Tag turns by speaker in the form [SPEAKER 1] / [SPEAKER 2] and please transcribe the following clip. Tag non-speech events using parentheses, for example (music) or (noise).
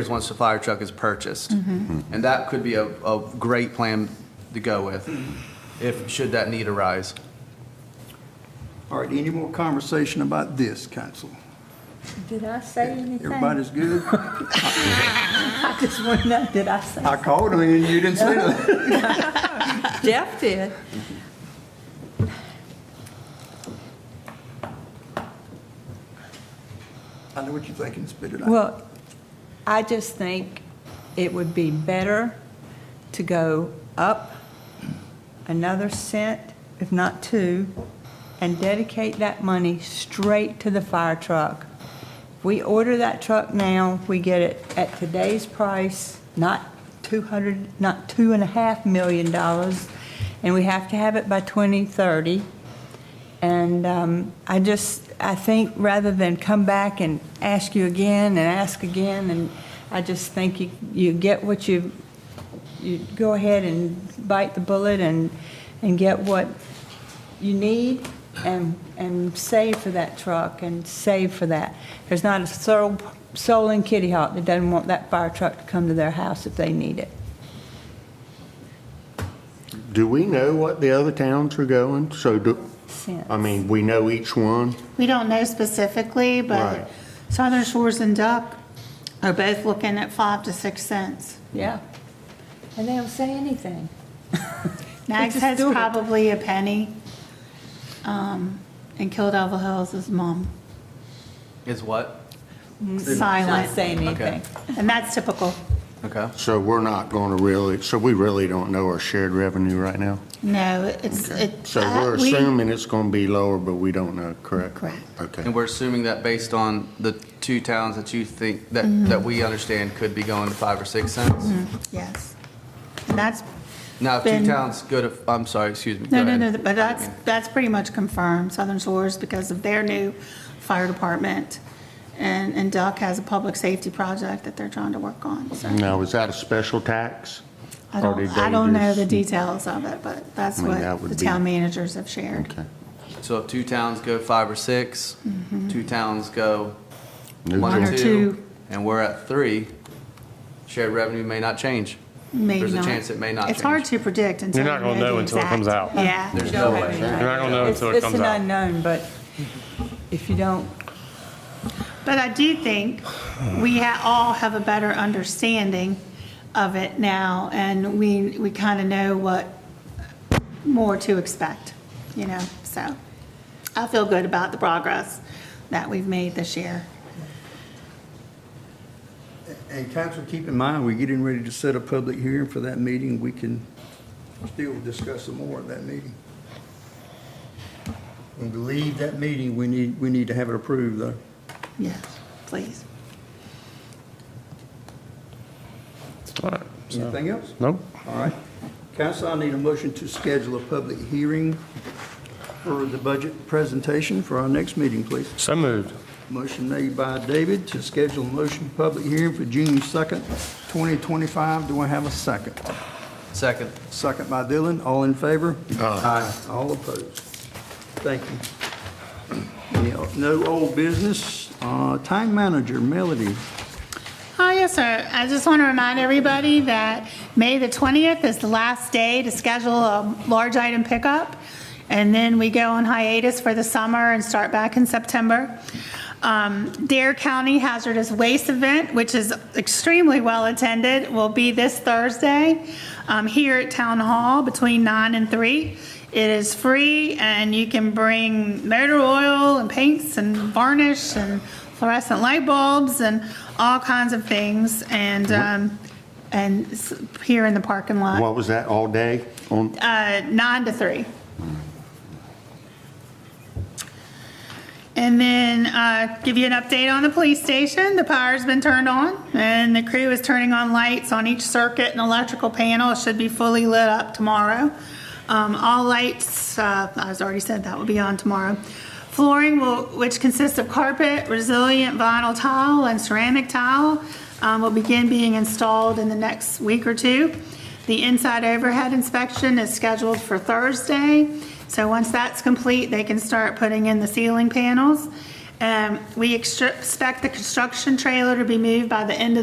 [SPEAKER 1] is once the fire truck is purchased.
[SPEAKER 2] Mm-hmm.
[SPEAKER 1] And that could be a, a great plan to go with, if, should that need arise.
[SPEAKER 3] All right, any more conversation about this, council?
[SPEAKER 4] Did I say anything?
[SPEAKER 3] Everybody's
[SPEAKER 4] (laughs)
[SPEAKER 3] good?
[SPEAKER 4] I just want to know, did I say?
[SPEAKER 3] I called him and you didn't say that.
[SPEAKER 4] Jeff did.
[SPEAKER 3] I know what you're thinking, spit it out.
[SPEAKER 4] Well, I just think it would be better to go up another cent, if not two, and dedicate that money straight to the fire truck. We order that truck now, we get it at today's price, not 200, not two and a half million dollars, and we have to have it by 2030. And um, I just, I think rather than come back and ask you again and ask again, and I just think you, you get what you, you go ahead and bite the bullet and, and get what you need and, and save for that truck and save for that. There's not a soul, soul in Kitty Hawk that doesn't want that fire truck to come to their house if they need it.
[SPEAKER 5] Do we know what the other towns are going? So do,
[SPEAKER 4] Cents.
[SPEAKER 5] I mean, we know each one?
[SPEAKER 2] We don't know specifically,
[SPEAKER 5] Right.
[SPEAKER 2] but Southern Shores and Duck are both looking at five to six cents.
[SPEAKER 4] Yeah. And they don't say anything.
[SPEAKER 2] Nags
[SPEAKER 4] just
[SPEAKER 2] Head's
[SPEAKER 4] do it.
[SPEAKER 2] probably a penny, um, and Kildover Hills is mom,
[SPEAKER 1] Is what?
[SPEAKER 4] Not
[SPEAKER 2] silent.
[SPEAKER 4] say anything.
[SPEAKER 2] And that's typical.
[SPEAKER 1] Okay.
[SPEAKER 5] So we're not going to really, so we really don't know our shared revenue right now?
[SPEAKER 2] No, it's, it.
[SPEAKER 5] So
[SPEAKER 2] uh,
[SPEAKER 5] we're
[SPEAKER 2] we-
[SPEAKER 5] assuming it's going to be lower, but we don't know, correct?
[SPEAKER 2] Correct.
[SPEAKER 1] And
[SPEAKER 5] Okay.
[SPEAKER 1] we're assuming that based on the two towns that you think, that,
[SPEAKER 2] Mm-hmm.
[SPEAKER 1] that we understand could be going to five or six cents?
[SPEAKER 2] Yes. And that's,
[SPEAKER 1] Now, if two
[SPEAKER 2] Been-
[SPEAKER 1] towns go to, I'm sorry, excuse me.
[SPEAKER 2] no,
[SPEAKER 1] go
[SPEAKER 2] no, no,
[SPEAKER 1] ahead.
[SPEAKER 2] but that's, that's pretty much confirmed, Southern Shores, because of their new fire department. And, and Duck has a public safety project that they're trying to work on, so.
[SPEAKER 5] Now, is that a special tax?
[SPEAKER 2] I
[SPEAKER 5] Or
[SPEAKER 2] don't,
[SPEAKER 5] did
[SPEAKER 2] I
[SPEAKER 5] they
[SPEAKER 2] don't know
[SPEAKER 5] just-
[SPEAKER 2] the details of it, but that's
[SPEAKER 5] I mean, that
[SPEAKER 2] what
[SPEAKER 5] would
[SPEAKER 2] the
[SPEAKER 5] be-
[SPEAKER 2] town managers have shared.
[SPEAKER 5] Okay.
[SPEAKER 1] So if two towns go five or six,
[SPEAKER 2] Mm-hmm.
[SPEAKER 1] two towns go
[SPEAKER 5] Neutral.
[SPEAKER 1] one or
[SPEAKER 2] One or
[SPEAKER 1] two,
[SPEAKER 2] two.
[SPEAKER 1] and we're at three, shared revenue may not change.
[SPEAKER 2] Maybe
[SPEAKER 1] There's a
[SPEAKER 2] not.
[SPEAKER 1] chance it may not
[SPEAKER 2] It's hard
[SPEAKER 1] change.
[SPEAKER 2] to predict until.
[SPEAKER 6] You're not
[SPEAKER 2] you
[SPEAKER 6] gonna know
[SPEAKER 2] the
[SPEAKER 6] until it
[SPEAKER 2] exact-
[SPEAKER 6] comes out.
[SPEAKER 2] Yeah.
[SPEAKER 1] There's no way.
[SPEAKER 6] You're not gonna know
[SPEAKER 4] It's,
[SPEAKER 6] until it
[SPEAKER 4] it's
[SPEAKER 6] comes
[SPEAKER 4] an
[SPEAKER 6] out.
[SPEAKER 4] unknown, but if you don't,
[SPEAKER 2] But I do think we ha- all have a better understanding of it now, and we, we kind of know what more to expect, you know, so. I feel good about the progress that we've made this year.
[SPEAKER 3] And council, keep in mind, we're getting ready to set a public hearing for that meeting. We can still discuss some more at that meeting. When we leave that meeting, we need, we need to have it approved, though.
[SPEAKER 2] Yes, please.
[SPEAKER 6] All right.
[SPEAKER 3] Anything else?
[SPEAKER 6] Nope.
[SPEAKER 3] All right. Council, I need a motion to schedule a public hearing for the budget presentation for our next meeting, please.
[SPEAKER 6] So moved.
[SPEAKER 3] Motion made by David to schedule a motion public hearing for June 2nd, 2025. Do I have a second?
[SPEAKER 1] Second.
[SPEAKER 3] Second by Dylan. All in favor? Aye. All opposed? Thank you. Any o- No old business. Uh, Time manager, Melody.
[SPEAKER 2] Oh, yes, sir. I just want to remind everybody that May the 20th is the last day to schedule a large item pickup, and then we go on hiatus for the summer and start back in September. Um, Dare County Hazardous Waste Event, which is extremely well-attended, will be this Thursday um, here at Town Hall between 9 and 3. It is free, and you can bring motor oil and paints and varnish and fluorescent light bulbs and all kinds of things, and, um, and s- here in the parking lot,
[SPEAKER 5] What was that, all day? On,
[SPEAKER 2] uh, nine to three. And then, uh, give you an update on the police station, the power's been turned on, and the crew is turning on lights on each circuit and electrical panel, it should be fully lit up tomorrow. Um, all lights, uh, I was already said that will be on tomorrow. Flooring will, which consists of carpet, resilient vinyl tile, and ceramic tile, um, will begin being installed in the next week or two. The inside overhead inspection is scheduled for Thursday, so once that's complete, they can start putting in the ceiling panels. Um, we extra- expect the construction trailer to be moved by the end of